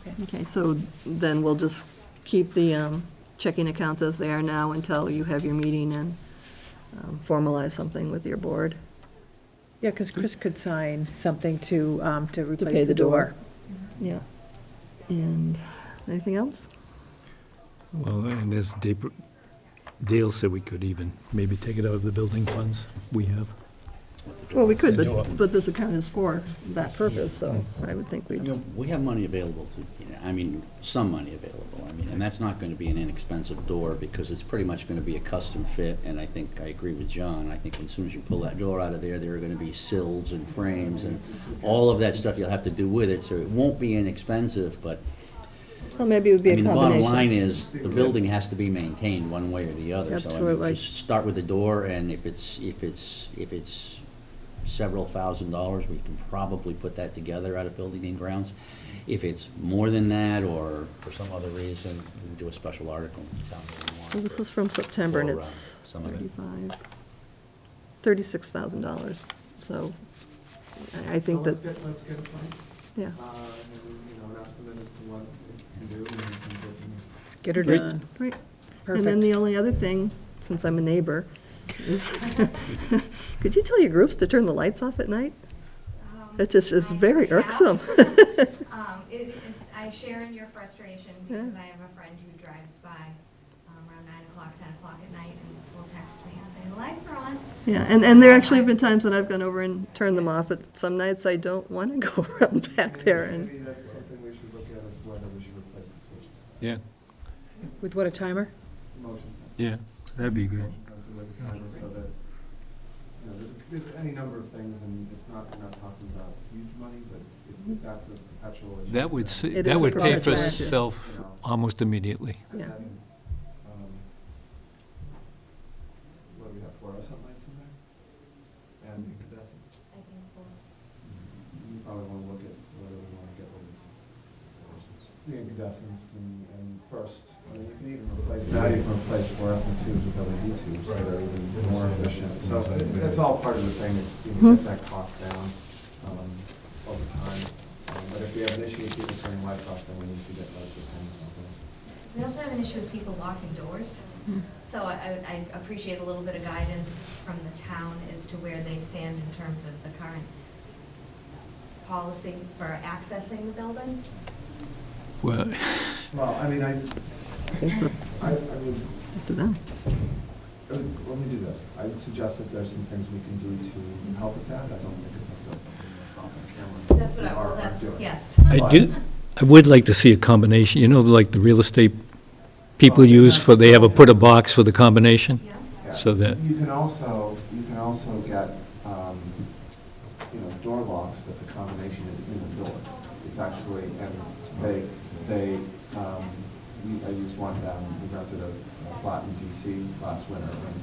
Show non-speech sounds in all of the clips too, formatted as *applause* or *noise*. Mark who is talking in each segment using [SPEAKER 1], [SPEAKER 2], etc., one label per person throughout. [SPEAKER 1] Okay.
[SPEAKER 2] Okay, so then we'll just keep the um, checking accounts as they are now until you have your meeting and um, formalize something with your board.
[SPEAKER 1] Yeah, because Chris could sign something to, um, to
[SPEAKER 2] pay
[SPEAKER 1] replace
[SPEAKER 2] the
[SPEAKER 1] the
[SPEAKER 2] door.
[SPEAKER 1] door.
[SPEAKER 2] Yeah. And anything else?
[SPEAKER 3] Well, and as Dap- Dale said, we could even maybe take it out of the building funds we have.
[SPEAKER 2] Well, we could,
[SPEAKER 3] Then you'll-
[SPEAKER 2] but, but this account is for that purpose, so I would think
[SPEAKER 4] You
[SPEAKER 2] we'd,
[SPEAKER 4] know, we have money available to, I mean, some money available, I mean, and that's not gonna be an inexpensive door, because it's pretty much gonna be a custom fit, and I think, I agree with John, I think as soon as you pull that door out of there, there are gonna be sills and frames and all of that stuff you'll have to do with it, so it won't be inexpensive, but,
[SPEAKER 2] well, maybe it would be
[SPEAKER 4] I
[SPEAKER 2] a
[SPEAKER 4] mean, the bottom
[SPEAKER 2] combination.
[SPEAKER 4] line is, the building has to be maintained one way or the other, so I
[SPEAKER 1] Absolutely.
[SPEAKER 4] mean, just start with the door, and if it's, if it's, if it's several thousand dollars, we can probably put that together out of building and grounds. If it's more than that, or for some other reason, we can do a special article. in the town meeting warrant
[SPEAKER 2] Well, This
[SPEAKER 4] for-
[SPEAKER 2] is from September and
[SPEAKER 4] for, uh,
[SPEAKER 2] it's
[SPEAKER 4] Some of it.
[SPEAKER 2] thirty-five, thirty-six thousand dollars, so I I think
[SPEAKER 5] Well,
[SPEAKER 2] that,
[SPEAKER 5] Let's get, let's get a price,
[SPEAKER 2] yeah.
[SPEAKER 5] uh, and, you know, an estimate as to what it can do and then go from there.
[SPEAKER 1] Let's get her
[SPEAKER 3] Great.
[SPEAKER 1] done.
[SPEAKER 2] Right. And then the only other thing, since I'm a neighbor, is, *laughs* could you tell your groups to turn the lights off at night?
[SPEAKER 6] Um,
[SPEAKER 2] It just is
[SPEAKER 6] I
[SPEAKER 2] very
[SPEAKER 6] have.
[SPEAKER 2] irksome. *laughs*
[SPEAKER 6] *laughs* Um, it, it- I share in your frustration because I have a friend who drives by um, around nine o'clock, ten o'clock at night and will text me and say, the lights are on.
[SPEAKER 2] Yeah, and, and there actually have been times that I've gone over and turned them off, but some nights I don't want to *laughs* go around back there and,
[SPEAKER 5] Maybe that's something we should look at is whether we should replace the switches.
[SPEAKER 3] Yeah,
[SPEAKER 1] With what, a timer?
[SPEAKER 5] Motions.
[SPEAKER 3] yeah, that'd be good.
[SPEAKER 5] That's a way to kind of- so that, you know, there's, there's any number of things and it's not, we're not talking about huge money, but if- if that's a perpetual issue.
[SPEAKER 3] That would,
[SPEAKER 5] then-
[SPEAKER 3] sa-
[SPEAKER 2] It
[SPEAKER 3] that
[SPEAKER 2] is a
[SPEAKER 3] would pay
[SPEAKER 2] perpetual
[SPEAKER 3] for
[SPEAKER 2] issue.
[SPEAKER 3] itself almost immediately.
[SPEAKER 5] And
[SPEAKER 2] Yeah.
[SPEAKER 5] then, um, What do we have, fluorescent lights in there? And incandescents?
[SPEAKER 6] I think we'll-
[SPEAKER 5] You probably want to look at whether we want to get rid of the incandescents and, and first, I mean, you can even replace, now you can replace fluorescent tubes with LED tubes that are even more efficient. So it- that's all part of the thing, is you know, get that cost down, um, over time. Um, But if we have an issue with people turning lights off, then we need to get lights that hang on.
[SPEAKER 6] We also have an issue with people locking doors.
[SPEAKER 2] Hmm.
[SPEAKER 6] So I, I I appreciate a little bit of guidance from the town as to where they stand in terms of the current policy for accessing the building.
[SPEAKER 3] Well,
[SPEAKER 5] Well, I mean, I,
[SPEAKER 2] it's up
[SPEAKER 5] I, I would
[SPEAKER 2] up to them.
[SPEAKER 5] Uh, Let me do this. I would suggest that there's some things we can do to help with that. I don't think it's necessarily something that's off the camera.
[SPEAKER 6] That's what I,
[SPEAKER 5] We are-
[SPEAKER 6] well,
[SPEAKER 5] aren't
[SPEAKER 6] that's,
[SPEAKER 5] doing.
[SPEAKER 6] yes.
[SPEAKER 3] I do, I would like to see a combination, you know, like the real estate people use for, they have a, put a box for the combination?
[SPEAKER 6] *laughs* Yeah.
[SPEAKER 5] Yeah.
[SPEAKER 3] So that-
[SPEAKER 5] You can also, you can also get, um, you know, door locks that the combination is in the door. It's actually, and they, they, um, we- I used one down, we rented a a flat in DC last winter. and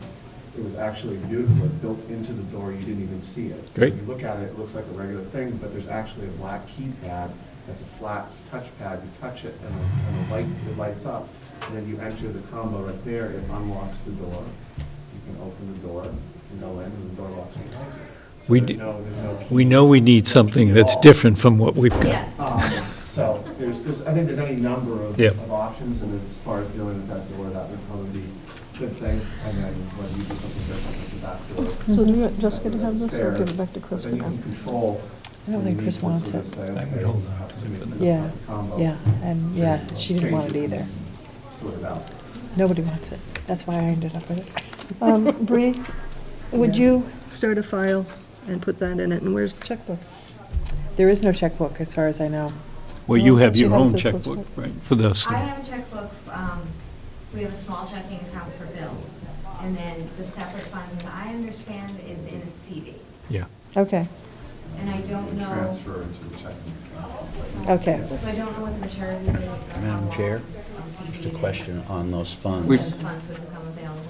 [SPEAKER 5] It was actually beautiful, It built into the door, you didn't even see it. So
[SPEAKER 3] Great.
[SPEAKER 5] you look at it, it looks like a regular thing, but there's actually a black keypad, that's a flat touchpad, you touch it and the- and the light, it lights up. And then you enter the combo right there, it unlocks the door, you can open the door, you can go in and the door locks behind you. So
[SPEAKER 3] We
[SPEAKER 5] there's
[SPEAKER 3] d-
[SPEAKER 5] no- there's no key.
[SPEAKER 3] We know we need something that's different from what we've got. *laughs*
[SPEAKER 6] Yes. *laughs*
[SPEAKER 5] Um, So there's, there's, I think there's any number of,
[SPEAKER 3] Yeah.
[SPEAKER 5] of options, and as far as dealing with that door, that would probably be a good thing. And then when you do something different with the back door.
[SPEAKER 7] So do you
[SPEAKER 5] that
[SPEAKER 7] want Jessica to
[SPEAKER 5] would
[SPEAKER 7] have this, or
[SPEAKER 5] spare,
[SPEAKER 7] give it back to Chris
[SPEAKER 5] but
[SPEAKER 7] for
[SPEAKER 5] Then you
[SPEAKER 7] now?
[SPEAKER 5] can control.
[SPEAKER 7] I don't
[SPEAKER 5] when
[SPEAKER 7] think
[SPEAKER 5] you
[SPEAKER 7] Chris
[SPEAKER 5] need to sort
[SPEAKER 7] wants
[SPEAKER 5] of
[SPEAKER 7] it.
[SPEAKER 3] I
[SPEAKER 5] say,
[SPEAKER 3] would
[SPEAKER 5] okay,
[SPEAKER 3] hold
[SPEAKER 5] we'll
[SPEAKER 3] on
[SPEAKER 5] have
[SPEAKER 3] to
[SPEAKER 5] to
[SPEAKER 3] it
[SPEAKER 5] make
[SPEAKER 3] for now.
[SPEAKER 5] the
[SPEAKER 7] Yeah,
[SPEAKER 5] combo
[SPEAKER 7] yeah, and yeah, she didn't want it
[SPEAKER 5] changes
[SPEAKER 7] either.
[SPEAKER 5] and Sort it out.
[SPEAKER 7] Nobody wants it. That's why I ended up with it.
[SPEAKER 2] Um,
[SPEAKER 7] *laughs*
[SPEAKER 2] Bree, would
[SPEAKER 5] Yeah.
[SPEAKER 2] you start a file and put that in it, and where's the checkbook?
[SPEAKER 7] There is no checkbook, as far as I know.
[SPEAKER 3] Well, you
[SPEAKER 7] No,
[SPEAKER 3] have
[SPEAKER 7] she
[SPEAKER 3] your
[SPEAKER 7] had a
[SPEAKER 3] own
[SPEAKER 7] physical
[SPEAKER 3] checkbook,
[SPEAKER 7] check.
[SPEAKER 3] right, for those.
[SPEAKER 6] I have a checkbook, um, we have a small checking account for bills, and then the separate funds, as I understand, is in a CD.
[SPEAKER 3] Yeah.
[SPEAKER 7] Okay,
[SPEAKER 6] And I don't know.
[SPEAKER 5] Transfer into the checking account.
[SPEAKER 7] okay.
[SPEAKER 6] So I don't know what the maturity is. or how
[SPEAKER 4] Madam
[SPEAKER 6] long
[SPEAKER 4] Chair,
[SPEAKER 6] the CD
[SPEAKER 4] Just a
[SPEAKER 6] is.
[SPEAKER 4] question on those funds.
[SPEAKER 6] When the funds would become available.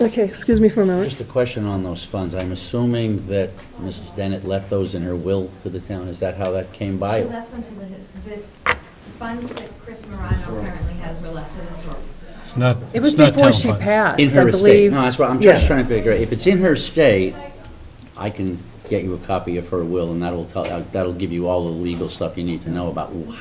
[SPEAKER 2] Okay, excuse me for a
[SPEAKER 4] Just
[SPEAKER 2] moment.
[SPEAKER 4] a question on those funds. I'm assuming that Mrs. Dennett left those in her will to the town. Is that how that came by?
[SPEAKER 6] She left some to the, this, the funds that Chris Morano currently has were left to the historical society.
[SPEAKER 3] It's not,
[SPEAKER 1] It was
[SPEAKER 3] it's not
[SPEAKER 1] before
[SPEAKER 3] town
[SPEAKER 1] she
[SPEAKER 3] funds.
[SPEAKER 4] In
[SPEAKER 1] passed, I
[SPEAKER 4] her estate.
[SPEAKER 1] believe.
[SPEAKER 4] No, that's what, I'm
[SPEAKER 2] Yeah.
[SPEAKER 4] just trying to figure out. If it's in her estate, I can get you a copy of her will, and that'll tell, that'll give you all the legal stuff you need to know about